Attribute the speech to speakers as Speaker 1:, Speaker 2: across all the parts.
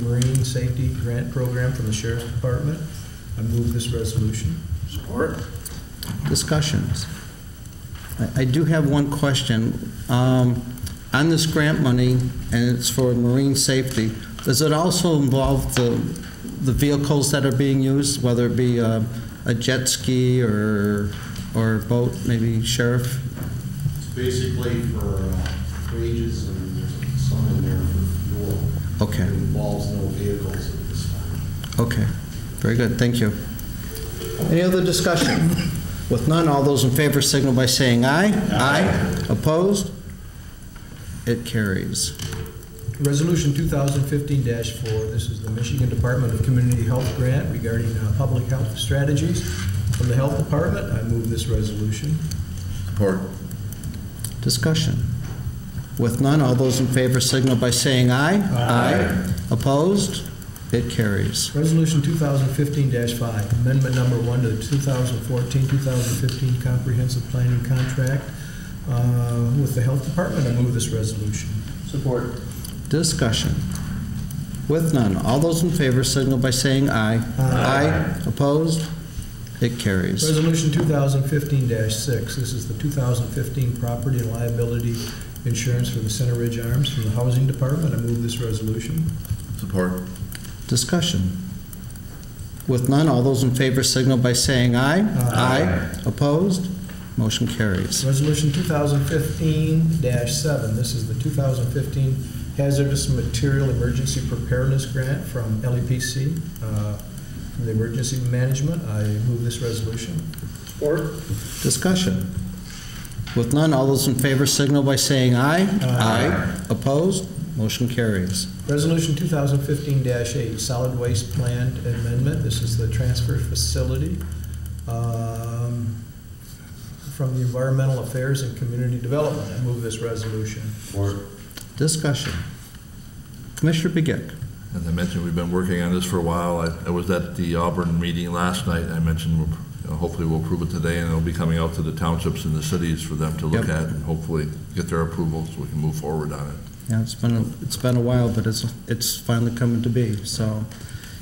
Speaker 1: Marine Safety Grant Program from the Sheriff's Department. I move this resolution.
Speaker 2: Support.
Speaker 3: Discussions. I- I do have one question. Um, On this grant money, and it's for marine safety, does it also involve the the vehicles that are being used, whether it be uh, a jet ski or or a boat, maybe sheriff?
Speaker 4: It's basically for uh, wages and there's some in there for fuel.
Speaker 3: Okay.
Speaker 4: It involves no vehicles at this time.
Speaker 3: Okay, very good, thank you. Any other discussion? With none, all those in favor signal by saying aye. Aye. Opposed? It carries.
Speaker 1: Resolution 2015-4, this is the Michigan Department of Community Health Grant regarding uh, public health strategies. From the Health Department, I move this resolution.
Speaker 2: Support.
Speaker 3: Discussion. With none, all those in favor signal by saying aye. Aye. Opposed? It carries.
Speaker 1: Resolution 2015-5, amendment number one to the 2014-2015 comprehensive planning contract uh, with the Health Department. I move this resolution.
Speaker 2: Support.
Speaker 3: Discussion. With none, all those in favor signal by saying aye.
Speaker 1: Aye.
Speaker 3: Opposed? It carries.
Speaker 1: Resolution 2015-6, this is the 2015 property and liability insurance for the Center Ridge Arms from the Housing Department. I move this resolution.
Speaker 2: Support.
Speaker 3: Discussion. With none, all those in favor signal by saying aye.
Speaker 1: Aye.
Speaker 3: Opposed? Motion carries.
Speaker 1: Resolution 2015-7, this is the 2015 Hazardous Material Emergency Preparedness Grant from LEPC, uh, from the Emergency Management. I move this resolution.
Speaker 2: Support.
Speaker 3: Discussion. With none, all those in favor signal by saying aye.
Speaker 1: Aye.
Speaker 3: Opposed? Motion carries.
Speaker 1: Resolution 2015-8, Solid Waste Plant Amendment. This is the transfer facility um, from the Environmental Affairs and Community Development. I move this resolution.
Speaker 4: Support.
Speaker 3: Discussion. Commissioner Begic.
Speaker 5: As I mentioned, we've been working on this for a while. I- I was at the Auburn meeting last night. I mentioned, we'll- you know, hopefully we'll approve it today, and it'll be coming out to the townships and the cities for them to look
Speaker 3: Yep.
Speaker 5: at and hopefully get their approval so we can move forward on it.
Speaker 3: Yeah, it's been, a- it's been a while, but it's, it's finally coming to be, so.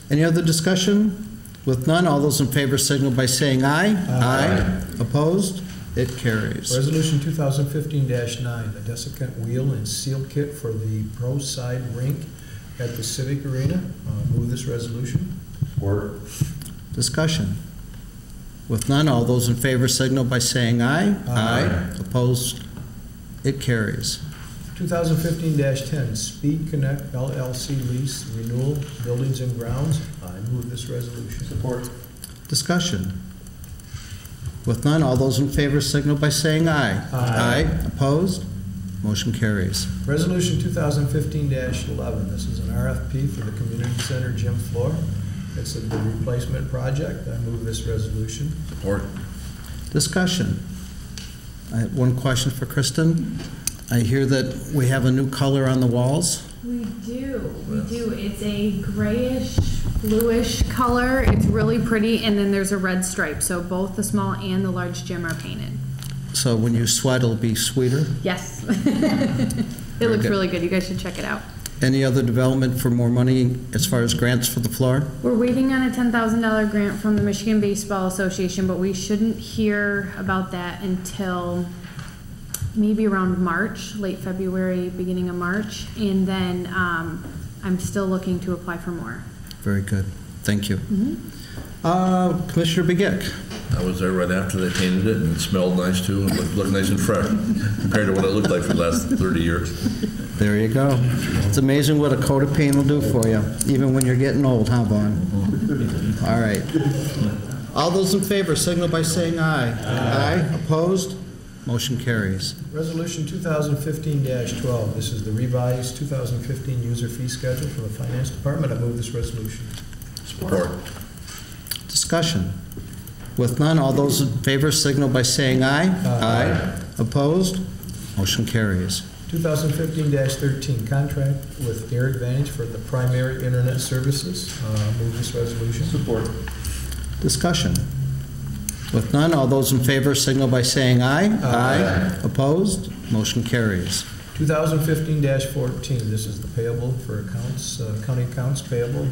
Speaker 3: Any other discussion? With none, all those in favor signal by saying aye.
Speaker 1: Aye.
Speaker 3: Opposed? It carries.
Speaker 1: Resolution 2015-9, the desiccant wheel and seal kit for the pro side rink at the Civic Arena. Uh, Move this resolution.
Speaker 4: Support.
Speaker 3: Discussion. With none, all those in favor signal by saying aye.
Speaker 1: Aye.
Speaker 3: Opposed? It carries.
Speaker 1: 2015-10, Speed Connect LLC lease renewal, buildings and grounds. I move this resolution.
Speaker 2: Support.
Speaker 3: Discussion. With none, all those in favor signal by saying aye.
Speaker 1: Aye.
Speaker 3: Opposed? Motion carries.
Speaker 1: Resolution 2015-11, this is an RFP for the community center gym floor. It's a big replacement project. I move this resolution.
Speaker 5: Support.
Speaker 3: Discussion. I have one question for Kristen. I hear that we have a new color on the walls.
Speaker 6: We do, we do. It's a grayish, bluish color. It's really pretty, and then there's a red stripe, so both the small and the large gym are painted.
Speaker 3: So when you sweat, it'll be sweeter.
Speaker 6: Yes. It looks
Speaker 3: good.
Speaker 6: really good. You guys should check it out.
Speaker 3: Any other development for more money as far as grants for the floor?
Speaker 6: We're waiting on a ten thousand dollar grant from the Michigan Baseball Association, but we shouldn't hear about that until maybe around March, late February, beginning of March, and then, um, I'm still looking to apply for more.
Speaker 3: Very good. Thank you. Uh, Commissioner Begic,
Speaker 5: I was there right after they painted it, and it smelled nice too, and looked- looked nice and fresh compared to what it looked like for the last 30 years.
Speaker 3: there you go. It's amazing what a coat of paint will do for you, even when you're getting old, huh, Vaughn? All right. All those in favor signal by saying aye. Aye. Opposed? Motion carries.
Speaker 1: Resolution 2015-12, this is the revised 2015 user fee schedule for the finance department. I move this resolution.
Speaker 5: Support.
Speaker 3: Discussion. With none, all those in favor signal by saying aye. Aye. Opposed? Motion carries.
Speaker 1: 2015-13, contract with Air Advantage for the primary internet services. Uh, Move this resolution.
Speaker 2: Support.
Speaker 3: Discussion. With none, all those in favor signal by saying aye.
Speaker 1: Aye.
Speaker 3: Opposed? Motion carries.
Speaker 1: 2015-14, this is the payable for accounts, uh, county accounts payable